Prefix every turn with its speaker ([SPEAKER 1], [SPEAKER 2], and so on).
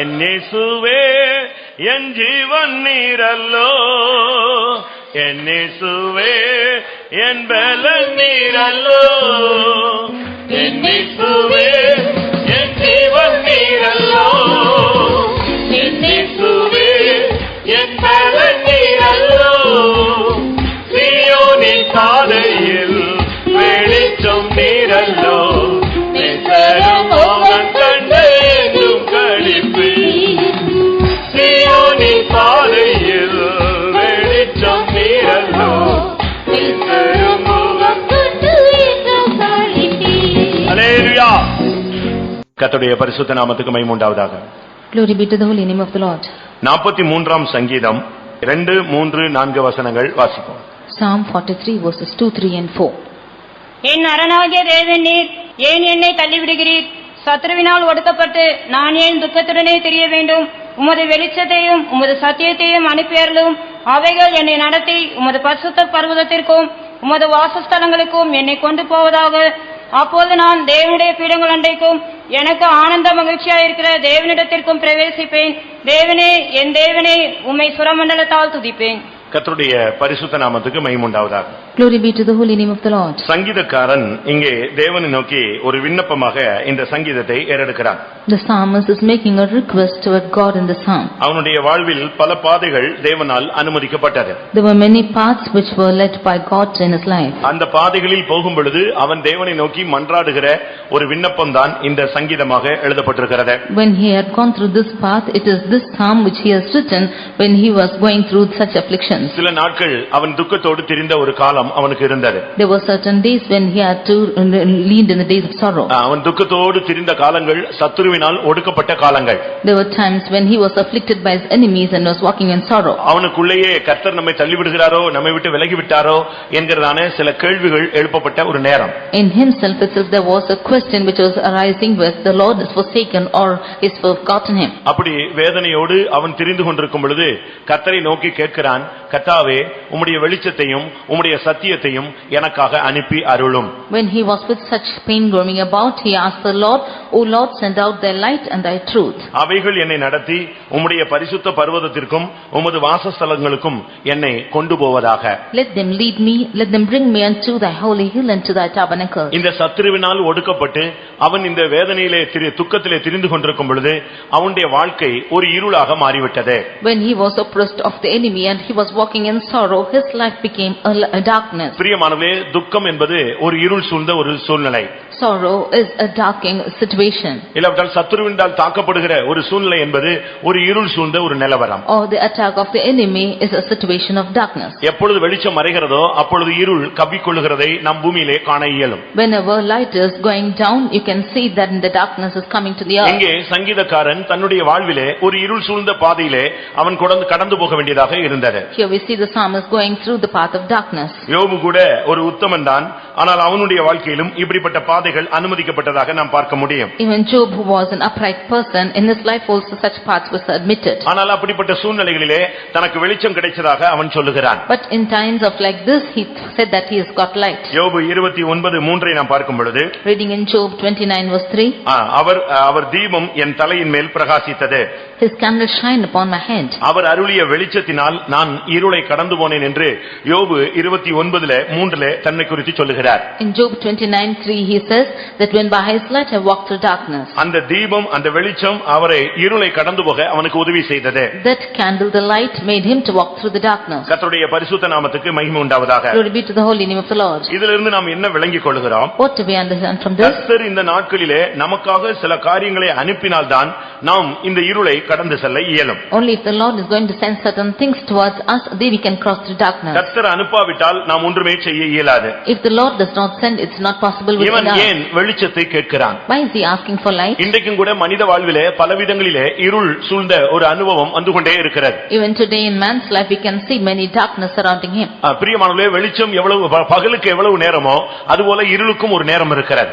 [SPEAKER 1] ಎನ್ನಿಸುವೆ ಎನ್ ಜೀವನ್ ನೀರಲ್ಲೋ ಎನ್ನಿಸುವೆ ಎನ್ ಬೆಲ ನೀರಲ್ಲೋ ಎನ್ನಿಸುವೆ ಎನ್ ಜೀವನ್ ನೀರಲ್ಲೋ ಎನ್ನಿಸುವೆ என் பலனீரல்லோ சியோனின் பாதையில் வெளிச்சம் நீரல்லோ நிசரம் அவன் கண்ட எங்கும் களிப்பு சியோனின் பாதையில் வெளிச்சம் நீரல்லோ நிசரம் அவன் அலேலுயா கர்த்தருடைய பரிசுத்த நாமத்துக்கு மைமுண்டாவதாக
[SPEAKER 2] Glory be to the holy name of the Lord.
[SPEAKER 1] நாற்பத்தி மூன்றாம் சங்கீதம் இரண்டு மூன்று நான்கு வசனங்கள் வாசிப்போம்
[SPEAKER 2] Psalm 43 verses 2, 3 and 4.
[SPEAKER 3] என் அரணாகிய தேவன் நீர் ஏன் என்னை தள்ளிவிடுகிறீர் சத்ருவினால் ஒடுக்கப்பட்டு நான் ஏன் துக்கத்துடனே தெரிய வேண்டும் உமது வெளிச்சத்தையும் உமது சத்தியத்தையும் அனுப்பியர்களும் அவைகள் என்னை நடத்தி உமது பரிசுத்த பர்வதத்திற்கும் உமது வாசஸ்தலங்களுக்கும் என்னை கொண்டு போவதாக அப்போது நான் தேவனுடைய பீடங்கள் அன்றைக்கும் எனக்கு ஆனந்த மகிழ்ச்சியாயிருக்கிற தேவனிடத்திற்கும் பிரவேசிப்பேன் தேவனே என் தேவனே உம்மை சுரமண்டலத்தால் துதிப்பேன்
[SPEAKER 1] கர்த்தருடைய பரிசுத்த நாமத்துக்கு மகிமுண்டாவதாக
[SPEAKER 2] Glory be to the holy name of the Lord.
[SPEAKER 1] சங்கீதக்காரன் இங்கே தேவனை நோக்கி ஒரு விண்ணப்பமாக இந்த சங்கீதத்தை ஏறெடுக்கிறான்
[SPEAKER 2] The psalmist is making a request toward God in the psalm.
[SPEAKER 1] அவனுடைய வாழ்வில் பல பாதைகள் தேவனால் அனுமதிக்கப்பட்டது
[SPEAKER 2] There were many paths which were led by God in his life.
[SPEAKER 1] அந்த பாதைகளில் போகும் பொழுது அவன் தேவனை நோக்கி மன்றாடுகிற ஒரு விண்ணப்பம்தான் இந்த சங்கீதமாக எழுதப்பட்டிருக்கிறது
[SPEAKER 2] When he had gone through this path, it is this psalm which he has written when he was going through such afflictions.
[SPEAKER 1] சில நாட்கள் அவன் துக்கத்தோடு திரிந்த ஒரு காலம் அவனுக்கு இருந்தது
[SPEAKER 2] There were certain days when he had to lean in the days of sorrow.
[SPEAKER 1] அவன் துக்கத்தோடு திரிந்த காலங்கள் சத்துருவினால் ஒடுக்கப்பட்ட காலங்கள்
[SPEAKER 2] There were times when he was afflicted by his enemies and was walking in sorrow.
[SPEAKER 1] அவனுக்குள்ளேயே கர்த்தர் நம்மை தள்ளிவிடுகிறாரோ நம்மை விட்டு விலகி விட்டாரோ என்கிறதான சில கேள்விகள் எழுப்பப்பட்ட ஒரு நேரம்
[SPEAKER 2] In himself itself there was a question which was arising with the Lord is forsaken or is forgotten him.
[SPEAKER 1] அப்படி வேதனையோடு அவன் திரிந்து கொண்டிருக்கும் பொழுது கர்த்தரை நோக்கி கேட்கிறான் கர்த்தாவே உம்முடைய வெளிச்சத்தையும் உம்முடைய சத்தியத்தையும் எனக்காக அனுப்பி அருளும்
[SPEAKER 2] When he was with such pain roaming about, he asked the Lord, O Lord, send out thy light and thy truth.
[SPEAKER 1] அவைகள் என்னை நடத்தி உம்முடைய பரிசுத்த பர்வதத்திற்கும் உமது வாசஸ்தலங்களுக்கும் என்னை கொண்டு போவதாக
[SPEAKER 2] Let them lead me, let them bring me unto thy holy hill and to thy tabernacle.
[SPEAKER 1] இந்த சத்துருவினால் ஒடுக்கப்பட்டு அவன் இந்த வேதனையிலே திரி துக்கத்திலே திரிந்து கொண்டிருக்கும் பொழுது அவனுடைய வாழ்க்கை ஒரு இருளாக மாறிவிட்டது
[SPEAKER 2] When he was oppressed of the enemy and he was walking in sorrow, his life became a l- a darkness.
[SPEAKER 1] பிரியமானவே துக்கம் என்பது ஒரு இருள் சூழ்ந்த ஒரு சூழ்நிலை
[SPEAKER 2] Sorrow is a darkening situation.
[SPEAKER 1] இல்லாவிட்டால் சத்துருவினால் தாக்கப்படுகிற ஒரு சூழ்நிலை என்பது ஒரு இருள் சூழ்ந்த ஒரு நிலவரம்
[SPEAKER 2] or the attack of the enemy is a situation of darkness.
[SPEAKER 1] எப்பொழுது வெளிச்சம் மறைகிறதோ அப்பொழுது இருள் கவ்விக்கொள்ளுகிறதை நம் பூமியிலே காண இயலும்
[SPEAKER 2] Whenever light is going down, you can see that the darkness is coming to the earth.
[SPEAKER 1] இங்கே சங்கீதக்காரன் தன்னுடைய வாழ்விலே ஒரு இருள் சூழ்ந்த பாதையிலே அவன் கடந்து கடந்து போக வேண்டியதாக இருந்தது
[SPEAKER 2] Here we see the psalmist going through the path of darkness.
[SPEAKER 1] யோபு கூட ஒரு உத்தமன் தான் ஆனால் அவனுடைய வாழ்க்கையிலும் இப்படிப்பட்ட பாதைகள் அனுமதிக்கப்பட்டதாக நாம் பார்க்க முடியும்
[SPEAKER 2] Even Job, who was an upright person, in his life also such paths was admitted.
[SPEAKER 1] ஆனால் அப்படிப்பட்ட சூழ்நிலைகளிலே தனக்கு வெளிச்சம் கிடைச்சதாக அவன் சொல்லுகிறான்
[SPEAKER 2] But in times of like this, he said that he has got light.
[SPEAKER 1] யோபு இருபத்தி ஒன்பது மூன்றை நாம் பார்க்கும் பொழுது
[SPEAKER 2] Reading in Job 29 verse 3,
[SPEAKER 1] ஆ, அவர் ஆ, அவர் தீபம் என் தலையின் மேல் பிரகாசித்தது
[SPEAKER 2] His candle shine upon my head.
[SPEAKER 1] அவர் அருளிய வெளிச்சத்தினால் நான் இருளை கடந்து போனேன் என்று யோபு இருபத்தி ஒன்பதுல மூன்றுல தன்னை குறித்து சொல்லுகிறார்
[SPEAKER 2] In Job 29:3, he says that when by his light I walked through darkness,
[SPEAKER 1] அந்த தீபம் அந்த வெளிச்சம் அவரை இருளை கடந்து போக அவனுக்கு உதவி செய்தது
[SPEAKER 2] that candle, the light, made him to walk through the darkness.
[SPEAKER 1] கர்த்தருடைய பரிசுத்த நாமத்துக்கு மகிமை உண்டாவதாக
[SPEAKER 2] Glory be to the holy name of the Lord.
[SPEAKER 1] இதிலிருந்து நாம் என்ன விளங்கிக் கொள்கிறோம்
[SPEAKER 2] What do we understand from this?
[SPEAKER 1] கர்த்தர் இந்த நாட்களிலே நமக்காக சில காரியங்களை அனுப்பினால்தான் நாம் இந்த இருளை கடந்து செல்ல இயலும்
[SPEAKER 2] Only if the Lord is going to send certain things towards us, then we can cross through darkness.
[SPEAKER 1] கர்த்தர் அனுப்பாவிட்டால் நாம் ஒன்றுமே செய்ய இயலாது
[SPEAKER 2] If the Lord does not send, it's not possible with
[SPEAKER 1] இவன்
[SPEAKER 2] us.
[SPEAKER 1] ஏன் வெளிச்சத்தை கேட்கிறான்
[SPEAKER 2] Why is he asking for light?
[SPEAKER 1] இன்றைக்கும் கூட மனித வாழ்விலே பலவிதங்களிலே இருள் சூழ்ந்த ஒரு அனுபவம் வந்து கொண்டே இருக்கிறது
[SPEAKER 2] Even today in man's life, we can see many darkness surrounding him.
[SPEAKER 1] அஹ் பிரியமானவர்களே வெளிச்சம் எவ்வளவு ப- பகலுக்கு எவ்வளவு நேரமோ அதுபோல இருளுக்கும் ஒரு நேரம் இருக்கிறது